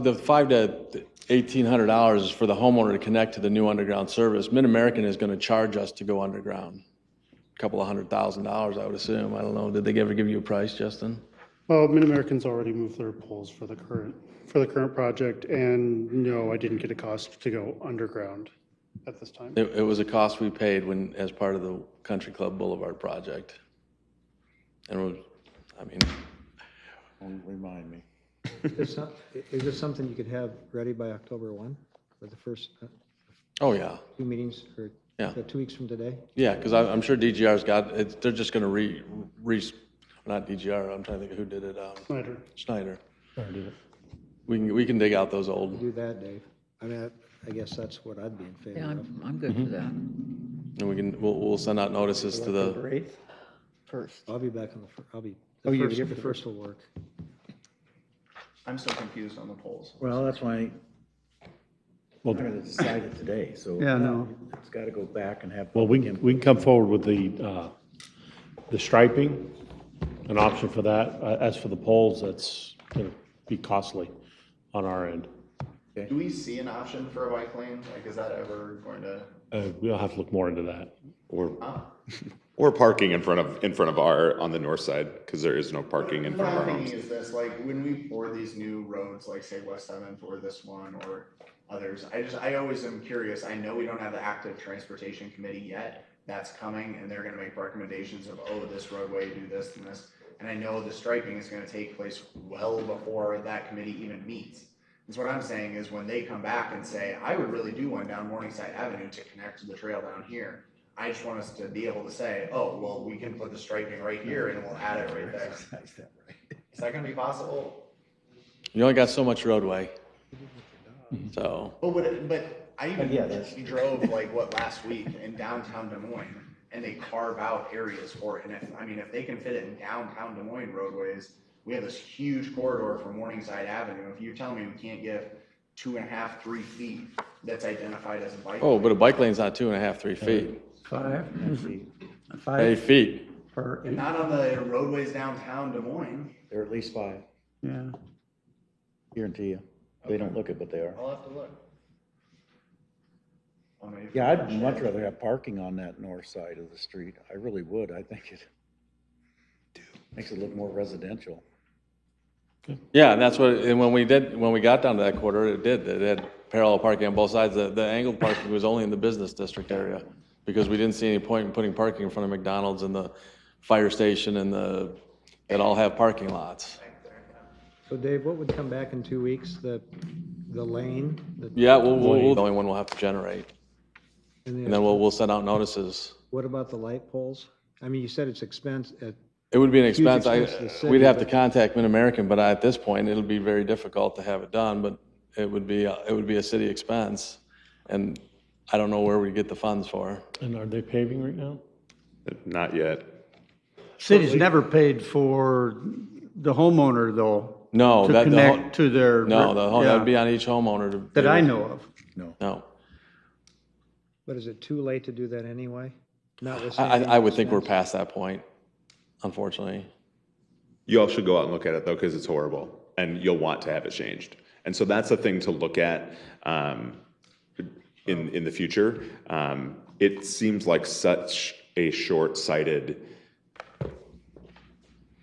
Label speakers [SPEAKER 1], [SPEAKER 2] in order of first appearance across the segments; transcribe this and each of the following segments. [SPEAKER 1] The five to eighteen hundred dollars is for the homeowner to connect to the new underground service. Mid-American is going to charge us to go underground. a Couple of hundred thousand dollars, I would assume. I don't know. Did they ever give you a price, Justin?
[SPEAKER 2] Well, Mid-American's already moved their poles for the current, for the current project, and no, I didn't get a cost to go underground at this time.
[SPEAKER 1] It, it was a cost we paid when, as part of the Country Club Boulevard project. And it was, I mean,
[SPEAKER 3] Don't Remind me.
[SPEAKER 4] Is some- is this something you could have ready by October 1, for the first uh,
[SPEAKER 1] oh, yeah.
[SPEAKER 4] two meetings, or
[SPEAKER 1] Yeah.
[SPEAKER 4] uh, two weeks from today?
[SPEAKER 1] Yeah, because I'm, I'm sure DGR's got, it's, they're just going to re, re, not DGR, I'm trying to think of who did it, um,
[SPEAKER 2] Snyder,
[SPEAKER 1] Schneider. We can, we can dig out those old,
[SPEAKER 4] Do that, Dave. I mean, I- I guess that's what I'd be in favor
[SPEAKER 5] Yeah,
[SPEAKER 4] of.
[SPEAKER 5] I'm, I'm good for that
[SPEAKER 1] and we can, we'll, we'll send out notices to the,
[SPEAKER 6] Eighth?
[SPEAKER 5] first.
[SPEAKER 4] I'll be back on the, fir- I'll be,
[SPEAKER 6] Oh,
[SPEAKER 4] the
[SPEAKER 6] you're
[SPEAKER 4] first,
[SPEAKER 6] here
[SPEAKER 4] the
[SPEAKER 6] for the
[SPEAKER 4] first will work.
[SPEAKER 7] I'm still confused on the polls.
[SPEAKER 3] Well, that's why. We're going to decide it today, so.
[SPEAKER 6] Yeah, no.
[SPEAKER 3] It's got to go back and have.
[SPEAKER 8] Well, we
[SPEAKER 3] public
[SPEAKER 8] can, we can come forward with the, uh, the striping, an option for that. Uh, As for the poles, that's going to be costly on our end.
[SPEAKER 7] Do we see an option for a bike lane? Like, is that ever going to?
[SPEAKER 8] Uh, We'll have to look more into that.
[SPEAKER 9] Or, or parking in front of, in front of our, on the north side, because there is no parking in
[SPEAKER 7] What
[SPEAKER 9] front of
[SPEAKER 7] I'm
[SPEAKER 9] our homes.
[SPEAKER 7] thinking is this, like, when we pour these new roads, like say West Seventh or this one or others, I just, I always am curious. I know we don't have the active transportation committee yet. That's coming and they're gonna make recommendations of, oh, this roadway, do this and this. And I know the striping is gonna take place well before that committee even meets. Is what I'm saying is when they come back and say, I would really do one down Morningside Avenue to connect to the trail down here. I just want us to be able to say, oh, well, we can put the striping right here and we'll add it right there.
[SPEAKER 3] exercise that right.
[SPEAKER 7] Is that gonna be possible?
[SPEAKER 1] you only got so much roadway. So,
[SPEAKER 7] Oh, But would it, but I even
[SPEAKER 3] yeah, that's-
[SPEAKER 7] drove like what last week in downtown Des Moines and they carve out areas for it. And if, I mean, if they can fit it in downtown Des Moines roadways, we have this huge corridor from Morningside Avenue. If you tell me we can't give two and a half, three feet that's identified as a bike.
[SPEAKER 1] oh, but a bike lane's not two and a half, three feet,
[SPEAKER 6] Uh, Five,
[SPEAKER 1] eight
[SPEAKER 6] five
[SPEAKER 1] feet.
[SPEAKER 6] for eight,
[SPEAKER 7] Not on the roadways downtown Des Moines.
[SPEAKER 3] There are at least five,
[SPEAKER 6] yeah.
[SPEAKER 3] guarantee you. They don't look it, but they are.
[SPEAKER 7] I'll have to look. I'll maybe-
[SPEAKER 3] Yeah, I'd much rather have parking on that north side of the street. I really would. I think it makes it look more residential.
[SPEAKER 1] Yeah, and that's what, and when we did, when we got down to that quarter, it did, it had parallel parking on both sides. The, the angled parking was only in the business district area, because we didn't see any point in putting parking in front of McDonald's and the fire station and the, that all have parking lots.
[SPEAKER 4] So Dave, what would come back in two weeks? The, the lane? the-
[SPEAKER 1] Yeah, we'll, we'll, we'll- the only one we'll have to generate, and
[SPEAKER 4] And
[SPEAKER 1] then
[SPEAKER 4] then,
[SPEAKER 1] we'll, we'll send out notices.
[SPEAKER 4] what about the light poles? I mean, you said it's expense, uh,
[SPEAKER 1] It would be an expense, I,
[SPEAKER 4] expense to the city,
[SPEAKER 1] we'd have to
[SPEAKER 4] but-
[SPEAKER 1] contact Mid-American, but at this point, it'll be very difficult to have it done, but it would be, uh, it would be a city expense, and I don't know where we'd get the funds for.
[SPEAKER 8] And are they paving right now?
[SPEAKER 9] Not yet.
[SPEAKER 6] City's never paid for the homeowner though.
[SPEAKER 1] No,
[SPEAKER 6] To
[SPEAKER 1] that- the ho-
[SPEAKER 6] connect to their.
[SPEAKER 1] No, the home, that'd be
[SPEAKER 6] Yeah,
[SPEAKER 1] on each homeowner to.
[SPEAKER 6] That I know of.
[SPEAKER 1] No,
[SPEAKER 4] but is it too late to do that anyway?
[SPEAKER 1] I, I
[SPEAKER 4] Notwithstanding
[SPEAKER 1] I would think we're past
[SPEAKER 4] expense?
[SPEAKER 1] that point, unfortunately.
[SPEAKER 9] You all should go out and look at it though, because it's horrible and you'll want to have it changed. And so that's a thing to look at um, in, in the future. Um, It seems like such a short-sighted,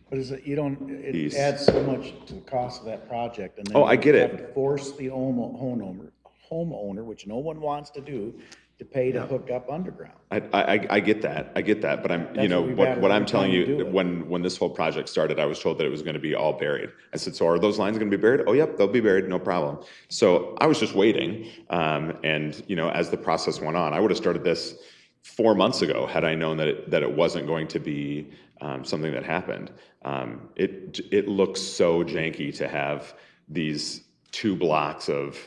[SPEAKER 3] But is it, you don't, it
[SPEAKER 9] East.
[SPEAKER 3] adds so much to the cost of that project and then.
[SPEAKER 9] Oh, I
[SPEAKER 3] you
[SPEAKER 9] get
[SPEAKER 3] have
[SPEAKER 9] it.
[SPEAKER 3] to Force the homo- homeowner, homeowner, which no one wants to do, to pay to hook up underground.
[SPEAKER 9] I, I, I- I get that, I get that, but I'm, you
[SPEAKER 3] That's
[SPEAKER 9] know,
[SPEAKER 3] what we
[SPEAKER 9] what,
[SPEAKER 3] battled
[SPEAKER 9] what
[SPEAKER 3] every
[SPEAKER 9] I'm telling
[SPEAKER 3] time we do
[SPEAKER 9] you,
[SPEAKER 3] it.
[SPEAKER 9] when, when this whole project started, I was told that it was gonna be all buried. I said, so are those lines gonna be buried? Oh, yep, they'll be buried, no problem. So I was just waiting, um, and, you know, as the process went on, I would've started this four months ago had I known that, it- that it wasn't going to be, um, something that happened. Um, it, it looks so janky to have these two blocks of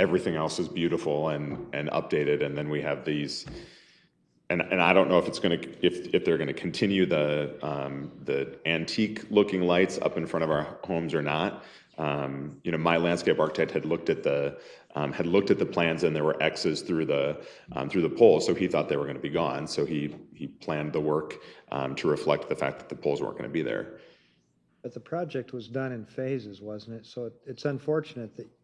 [SPEAKER 9] everything else is beautiful and, and updated, and then we have these, and, and I don't know if it's going to, if, if they're going to continue the, um, the antique looking lights up in front of our homes or not. Um, you know, my landscape architect had looked at the, um, had looked at the plans and there were X's through the, um, through the poles. So he thought they were going to be gone. So he, he planned the work, um, to reflect the fact that the poles weren't going to be there.
[SPEAKER 4] But the project was done in phases, wasn't it? So it- it's unfortunate that